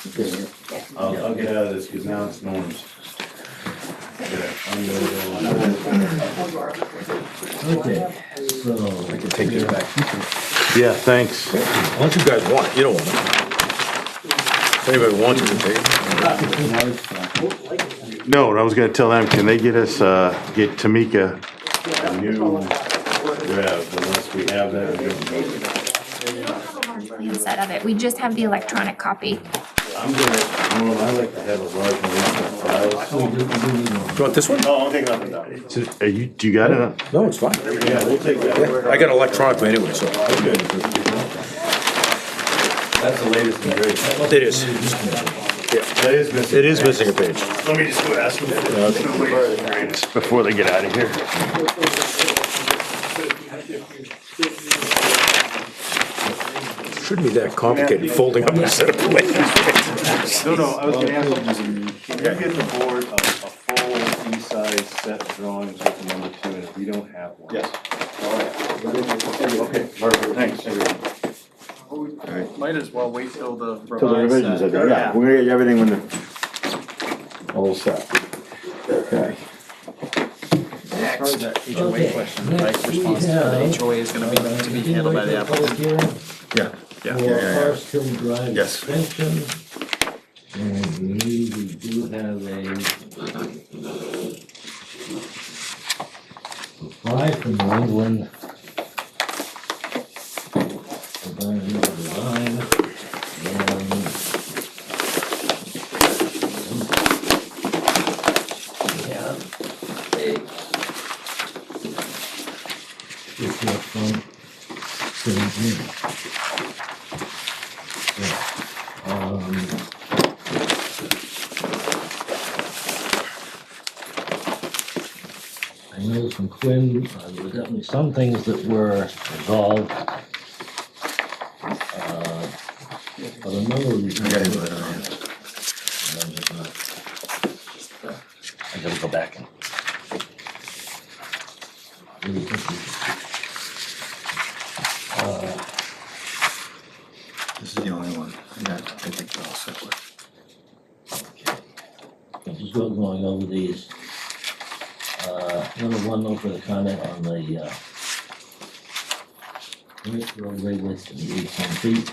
Senior. I'll, I'll get out of this, cause now it's Norm's. Yeah, I'm gonna go on. Okay, so. I can take this back. Yeah, thanks. Unless you guys want it, you don't want it. If anybody wants it, they Now it's, uh, No, and I was gonna tell them, can they get us, uh, get Tamika a new draft, unless we have that. we don't. Instead of it, we just have the electronic copy. I'm gonna, Norm, I like to have a large one of so we do, we do need one. You want this one? No, I'm taking up that. So, are you, do you got it? No, it's fine. Yeah, we'll take that. I got it electronically anyway, so. That's the latest and greatest. It is. That is missing. It is missing a page. Let me just go ask them. Before they get out of here. Shouldn't be that complicated, folding up a set of plans. No, no, I was gonna ask them, can you get the board a, a full E-size set of drawings with the number two in it? We don't have one. Yes. Okay, perfect, thanks, everyone. Might as well wait till the. uh, Till the revisions are done, yeah, we're gonna get everything when the. All set. Okay. Next. HOA Okay, question, next like we response to the have- HOA is gonna be, to be handled by the applicant. Yeah, yeah, yeah, For yeah, yeah. Forest Hill Drive Yes. extension. And I believe we do have a. Reply from New England. Environmental design. and- Yeah. It's not from seventeen. Um, I know from Quinn, uh, there were definitely some things that were resolved. uh, But a number of reasons. I I gotta go back and. Really think we should- This is the only one. Yeah, I think they're all separate. I'm just go- going over these. Uh, number one, no further comment on the, uh, Rick roadway width to be eighteen feet.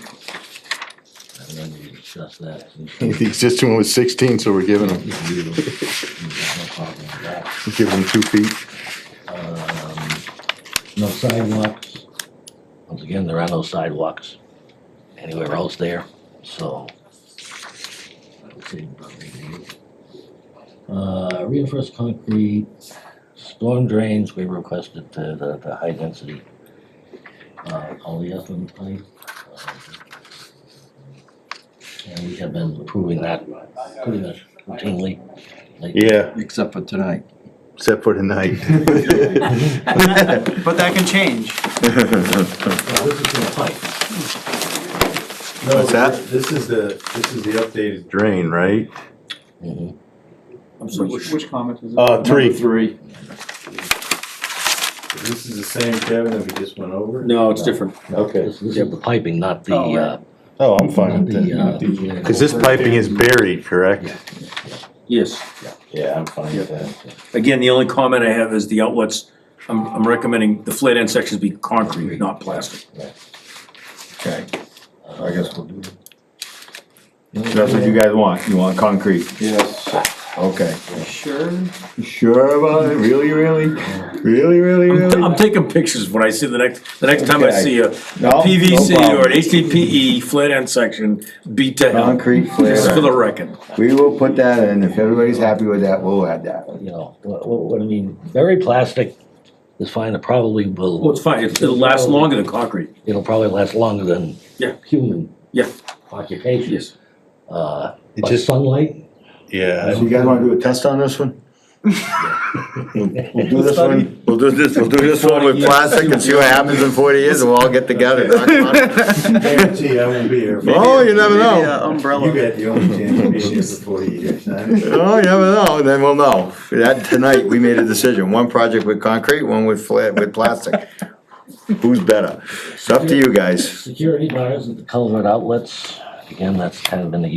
I remember we discussed that. The existing one was sixteen, so we're giving them, You can do it. No problem with that. giving them two feet. No sidewalks. Once again, there are no sidewalks anywhere else there, so. I would say about maybe eight. Uh, reinforced concrete, storm drains, we requested the, the, the high density. Uh, polyethylene pipe. uh, And we have been approving that pretty much routinely. lately. Yeah, Except for tonight. except for tonight. But that can change. Now, this is the pipe. No, What's that? This is the, this is the updated drain, right? Mhm. I'm sorry, which, which comment is it? Uh, three. Number Three. This is the same Kevin that we just went over? No, it's different. Okay. This this is the piping, not the, Oh, right. uh, Oh, I'm fine with that. The, uh, Cause this piping is buried, correct? Yes. Yeah, I'm fine with that. Again, the only comment I have is the outlets, I'm, I'm recommending the flat end sections be concrete, not plastic. Okay, I guess we'll do it. That's what you guys want. You want concrete? Yes. Okay. Sure. Sure about it? Really, really? Really, really, I'm I'm really? taking pictures when I see the next, the next time I Okay. see a No, PVC no problem. or an HDPE E flat end section, beat to hell. Concrete Just for the flare. record. We will put that in. If everybody's happy with that, we'll add that. you know, what, what what I mean, very plastic is fine, it probably Well, will, it's fine, It- it'll last longer than concrete. it'll probably last longer than Yeah. human Yeah, occupation. yes. Uh, It but just- sunlight, Yeah. So you guys wanna do a test on this one? We'll do this one, we'll do this, we'll do this one with plastic and see what happens in forty years and we'll all get together. Guarantee I won't be here. Oh, you never Maybe a know. You Umbrella. got the only chance to be here for forty years, huh? Oh, you never know, then we'll know. That, tonight, we made a decision, one project with concrete, one with flat, with plastic. Who's better? It's up to you guys. security bars at the culvert outlets, again, that's kind of been the